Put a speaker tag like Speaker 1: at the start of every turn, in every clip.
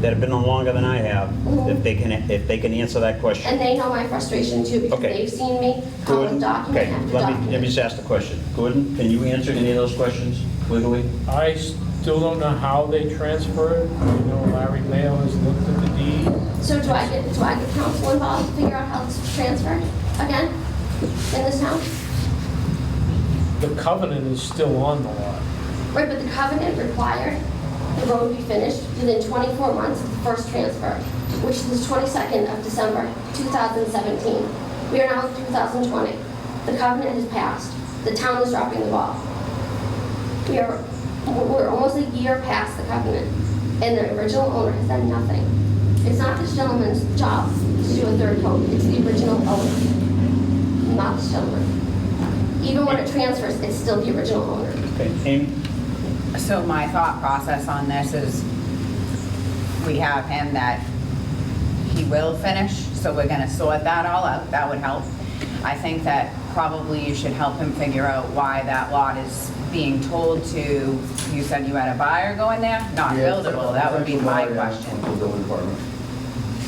Speaker 1: that have been on longer than I have, if they can, if they can answer that question.
Speaker 2: And they know my frustration too, because
Speaker 1: Okay.
Speaker 2: they've seen me come
Speaker 1: Gordon,
Speaker 2: with document
Speaker 1: okay,
Speaker 2: after
Speaker 1: let me, let me
Speaker 2: document.
Speaker 1: just ask the question. Gordon, can you answer any of those questions legally?
Speaker 3: I still don't know how they transfer it. You know, Larry Mayo has looked at the deed.
Speaker 2: So do I get, do I get counsel involved to figure out how it's transferred again in this town?
Speaker 3: The covenant is still on the lot.
Speaker 2: Right, but the covenant required the road be finished within 24 months of the first transfer, which is the 22nd of December 2017. We are now in 2020. The covenant has passed. The town is dropping the ball. We are, we're almost a year past the covenant, and the original owner has done nothing. It's not this gentleman's job to do a third coat. It's the original owner, not this gentleman. Even when it transfers, it's still the original owner.
Speaker 1: Okay, Amy?
Speaker 4: So my thought process on this is, we have him that he will finish, so we're gonna sort that all out, that would help. I think that probably you should help him figure out why that lot is being told to, you said you had a buyer going there? Not buildable, that would be my question.
Speaker 5: Building department.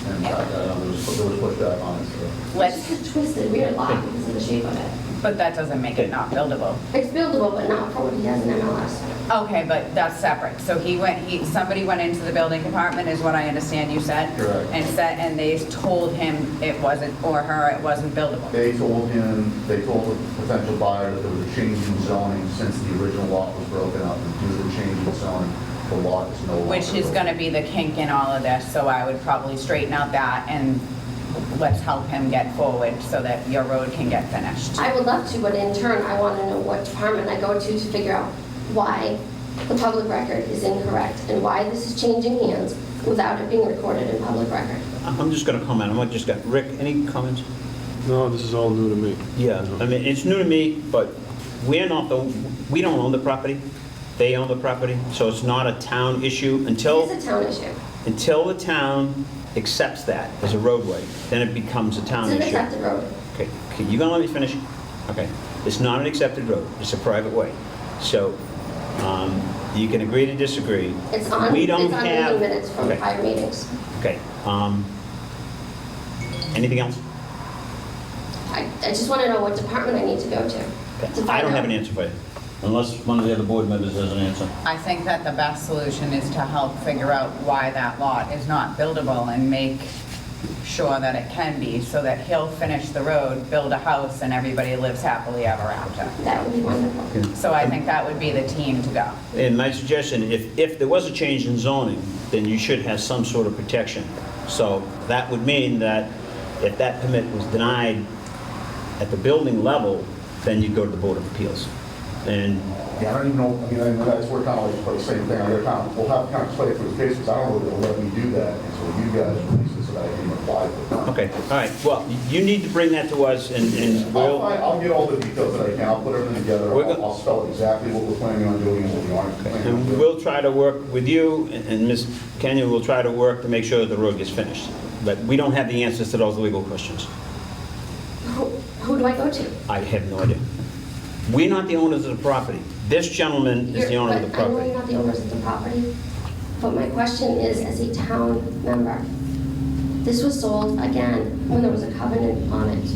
Speaker 5: And
Speaker 4: Yeah.
Speaker 5: I got, um, there was, there was pushback on it, so.
Speaker 2: It's
Speaker 4: Let's,
Speaker 2: just a twisted, weird lot because of the shape of it.
Speaker 4: but that doesn't make it not buildable.
Speaker 2: It's buildable, but not for what he has in MLS.
Speaker 4: Okay, but that's separate. So he went, he, somebody went into the building department, is what I understand you said?
Speaker 5: Correct.
Speaker 4: And said, and they told him it wasn't, or her, it wasn't buildable.
Speaker 5: They told him, they told the potential buyer that there was a change in zoning since the original lot was broken up. And due to the change in zoning, the lot is no longer.
Speaker 4: Which is
Speaker 5: buildable.
Speaker 4: gonna be the kink in all of this, so I would probably straighten out that and let's help him get forward so that your road can get finished.
Speaker 2: I would love to, but in turn, I want to know what department I go to to figure out why the public record is incorrect and why this is changing hands without it being recorded in public record.
Speaker 1: I- I'm just going to comment, I'm not just going, Rick, any comments?
Speaker 6: No, this is all new to me.
Speaker 1: Yeah, I mean, it's new to me, but we're not the, we don't own the property. They own the property, so it's not a town issue until,
Speaker 2: It is a town issue.
Speaker 1: until the town accepts that as a roadway, then it becomes a town
Speaker 2: It's an
Speaker 1: issue.
Speaker 2: accepted road.
Speaker 1: Okay, okay, you gonna let me finish? Okay. It's not an accepted road, it's a private way. So, um, you can agree to disagree.
Speaker 2: It's on,
Speaker 1: We
Speaker 2: it's
Speaker 1: don't
Speaker 2: on
Speaker 1: have-
Speaker 2: meeting minutes from
Speaker 1: Okay,
Speaker 2: prior meetings.
Speaker 1: Okay, um, anything else?
Speaker 2: I, I just want to know what department I need to go to.
Speaker 1: Okay,
Speaker 2: to
Speaker 1: I
Speaker 2: find
Speaker 1: don't have
Speaker 2: out.
Speaker 1: an answer for you, unless one of the other board members has an answer.
Speaker 4: I think that the best solution is to help figure out why that lot is not buildable and make sure that it can be, so that he'll finish the road, build a house, and everybody lives happily ever after.
Speaker 2: That would be wonderful.
Speaker 4: So I think that would be the team to go.
Speaker 1: And my suggestion, if, if there was a change in zoning, then you should have some sort of protection. So that would mean that if that permit was denied at the building level, then you go to the Board of Appeals. And
Speaker 5: Yeah, I don't even know, I mean, I know that's where kind of like, for the same thing, other town, we'll have kind of play for the case, because I don't know if they'll let me do that until you guys release it so that I can apply for it.
Speaker 1: Okay, all right, well, you need to bring that to us, and, and
Speaker 5: I'll
Speaker 1: we'll,
Speaker 5: find, I'll get all the details that I can, I'll put everything together,
Speaker 1: We're go-
Speaker 5: I'll I'll spell exactly what we're planning on doing and what we aren't planning on
Speaker 1: and
Speaker 5: doing.
Speaker 1: we'll try to work with you, and- and Ms. Kenyon will try to work to make sure that the road gets finished. But we don't have the answers to those legal questions.
Speaker 2: Who, who do I go to?
Speaker 1: I have no idea. We're not the owners of the property. This gentleman is the owner of the
Speaker 2: But I know
Speaker 1: property.
Speaker 2: you're not the owners of the property, but my question is, as a town member, this was sold again when there was a covenant on it.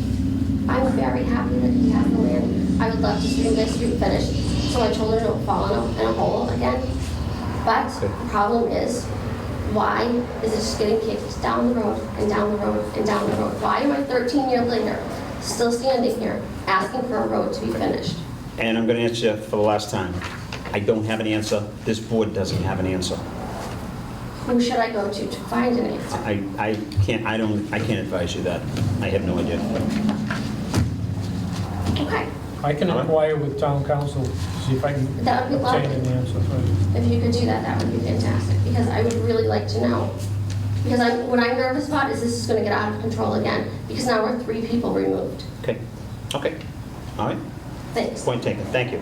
Speaker 2: I'm very happy that he has the land. I would love to see this street finished, so my children don't fall in a, in a hole again. But the problem is, why is it just getting kicked down the road and down the road and down the road? Why am I 13 years later still standing here asking for a road to be finished?
Speaker 1: And I'm going to answer for the last time. I don't have an answer. This board doesn't have an answer.
Speaker 2: Who should I go to to find an answer?
Speaker 1: I, I can't, I don't, I can't advise you that. I have no idea.
Speaker 2: Okay,
Speaker 3: I can inquire with town council, see if I can
Speaker 2: That would be
Speaker 3: obtain
Speaker 2: lovely.
Speaker 3: an answer for you.
Speaker 2: if you could do that, that would be fantastic, because I would really like to know. Because I, what I'm nervous about is this is gonna get out of control again, because now we're three people removed.
Speaker 1: Okay, okay, all right.
Speaker 2: Thanks.
Speaker 1: Point taken, thank you.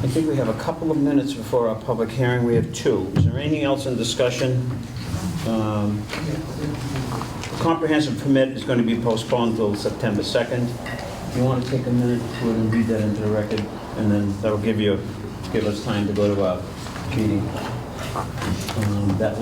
Speaker 1: I think we have a couple of minutes before our public hearing, we have two. Is there anything else in discussion? Um, Comprehensive permit is going to be postponed till September 2nd. You want to take a minute to read that into the record, and then that'll give you, give us time to go to our meeting. Um, That